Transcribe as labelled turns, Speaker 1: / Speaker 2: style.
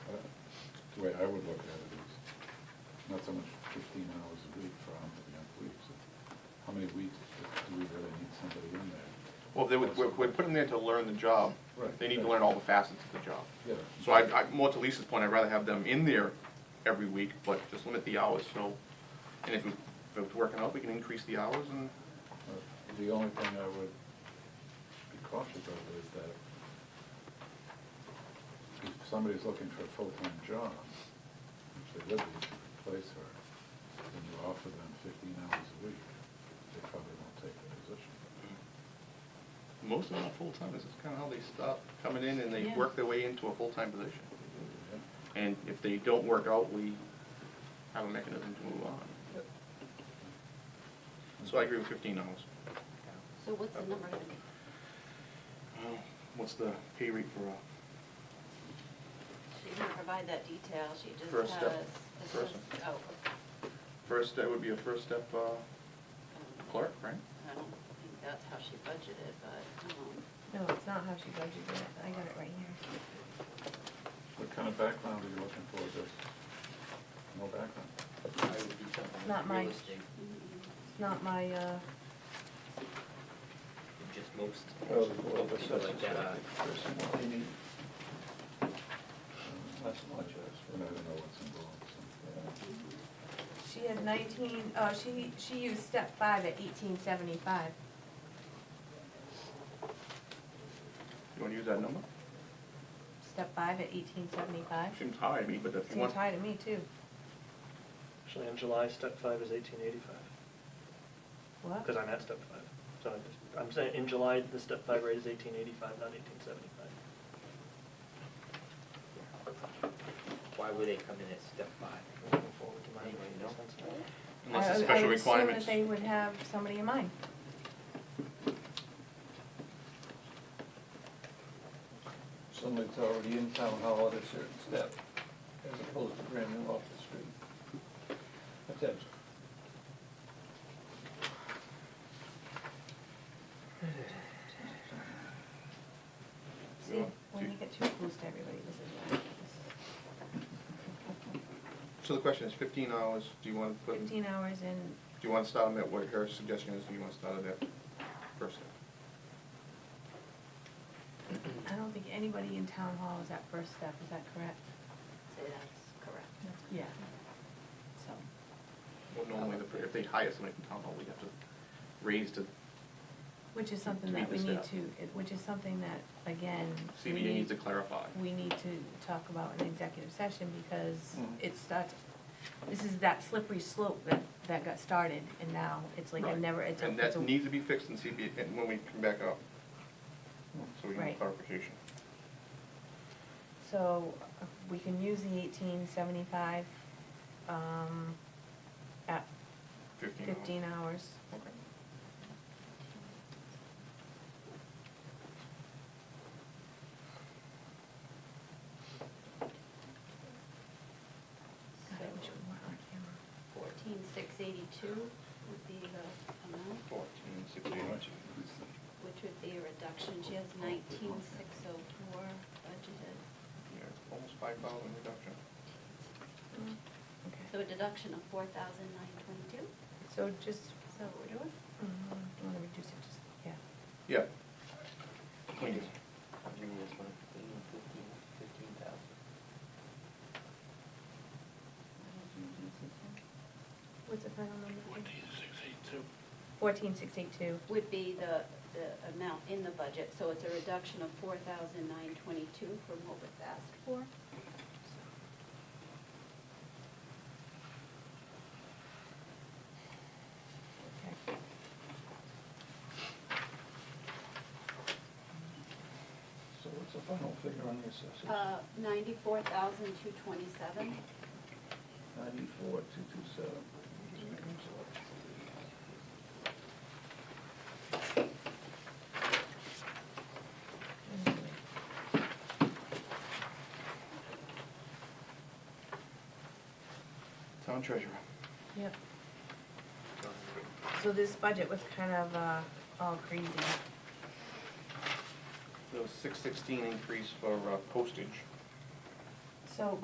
Speaker 1: the way I would look at it is, not so much fifteen hours a week for how many weeks, how many weeks do we really need somebody in there?
Speaker 2: Well, they would, we're, we're putting them there to learn the job.
Speaker 1: Right.
Speaker 2: They need to learn all the facets of the job.
Speaker 1: Yeah.
Speaker 2: So I, I, more to Lisa's point, I'd rather have them in there every week, but just limit the hours, so, and if, it- if it's working out, we can increase the hours and,
Speaker 1: But Uh, The only thing I would be cautious of is that if somebody's looking for a full-time job, which they would be to replace her, and you offer them fifteen hours a week, they probably won't take the position.
Speaker 2: most of them are full-time, this is kinda how they stop coming in and they
Speaker 3: Yeah.
Speaker 2: work their way into a full-time position.
Speaker 1: Yeah.
Speaker 2: And if they don't work out, we have a mechanism to move on. So I agree with fifteen hours.
Speaker 3: So what's the number gonna be?
Speaker 2: Well, Uh, What's the pay rate for a
Speaker 3: She didn't provide that detail, she just has.
Speaker 2: First step.
Speaker 3: it's
Speaker 2: First
Speaker 3: just-
Speaker 2: step.
Speaker 3: Oh.
Speaker 2: first, that would be a first step, uh, clerk, right?
Speaker 3: I don't think that's how she budgeted, but, um,
Speaker 4: No, it's not how she budgeted it. I got it right here.
Speaker 1: What kind of background are you looking for, just no background?
Speaker 4: Not mine.
Speaker 5: Real estate,
Speaker 3: mm-hmm.
Speaker 4: It's not my, uh,
Speaker 5: just most,
Speaker 1: Oh,
Speaker 5: most people like that are
Speaker 6: Um,
Speaker 1: That's much, and I don't know what's involved, so.
Speaker 4: she had nineteen, oh, she, she used step five at eighteen seventy-five.
Speaker 2: You wanna use that number?
Speaker 4: Step five at eighteen seventy-five.
Speaker 2: Seems high to me, but if you
Speaker 4: Seems
Speaker 2: want,
Speaker 4: high to me too.
Speaker 7: Actually, in July, step five is eighteen eighty-five,
Speaker 4: What?
Speaker 7: because I'm at step five. So I'm just, I'm saying, in July, the step five rate is eighteen eighty-five, not eighteen seventy-five.
Speaker 5: why would they come in at step five?
Speaker 7: Moving forward to my
Speaker 5: Anyway,
Speaker 7: rate,
Speaker 5: no.
Speaker 7: makes sense to me.
Speaker 2: unless it's
Speaker 4: I-
Speaker 2: special requirements.
Speaker 4: I would assume that they would have somebody in mind.
Speaker 6: Somebody that's already in town hall at a certain step, as opposed to brand new off the street. That's it.
Speaker 4: See,
Speaker 2: Yeah.
Speaker 4: when you get too close to everybody, this is what happens.
Speaker 2: So the question is fifteen hours, do you wanna put, do
Speaker 4: Fifteen hours and,
Speaker 2: you wanna start them at what her suggestion is, do you wanna start it at first step?
Speaker 4: I don't think anybody in town hall is at first step, is that correct?
Speaker 3: say that's correct.
Speaker 4: Yeah. So,
Speaker 2: Well, normally, the- if they hire somebody from town hall, we have to raise to,
Speaker 4: which is something
Speaker 2: To meet
Speaker 4: that we
Speaker 2: the
Speaker 4: need
Speaker 2: staff.
Speaker 4: to, it- which is something that, again. we
Speaker 2: CBA needs to clarify.
Speaker 4: we need to talk about an executive session because
Speaker 2: Hmm.
Speaker 6: Mhm.
Speaker 4: it starts, this is that slippery slope that, that got started and now it's like I
Speaker 2: Right.
Speaker 4: never, it's a,
Speaker 2: And
Speaker 4: it's
Speaker 2: that
Speaker 4: a-
Speaker 2: needs to be fixed in CBA, and when we come back up, so
Speaker 6: Hmm.
Speaker 2: we can
Speaker 4: Right.
Speaker 2: clarification.
Speaker 4: So uh, we can use the eighteen seventy-five, um, at
Speaker 2: Fifteen hours.
Speaker 4: fifteen hours.
Speaker 2: Okay.
Speaker 4: God, I wish
Speaker 3: So
Speaker 4: we weren't on camera.
Speaker 3: fourteen six eighty-two would be the amount,
Speaker 2: Fourteen, sixteen,
Speaker 3: which would be a reduction. She has nineteen six oh four budgeted,
Speaker 2: yeah, it's almost five thousand reduction.
Speaker 4: Okay,
Speaker 3: so a deduction of four thousand nine twenty-two.
Speaker 4: so just,
Speaker 3: Is that what we're doing?
Speaker 4: um, I wanna reduce it, just, yeah.
Speaker 2: Yeah.
Speaker 5: Give me this one, fifteen, fifteen, fifteen thousand.
Speaker 4: What's the final number? Fourteen six eight two.
Speaker 3: Would be the, the amount in the budget, so it's a reduction of four thousand nine twenty-two from what was asked for.
Speaker 4: Okay.
Speaker 6: So what's the final figure on the assessors?
Speaker 3: Uh, ninety-four thousand two twenty-seven.
Speaker 6: Ninety-four, two two seven.
Speaker 2: Town treasurer.
Speaker 4: Yep. So this budget was kind of, uh, all crazy.
Speaker 2: There was six sixteen increase for uh, postage.
Speaker 4: So,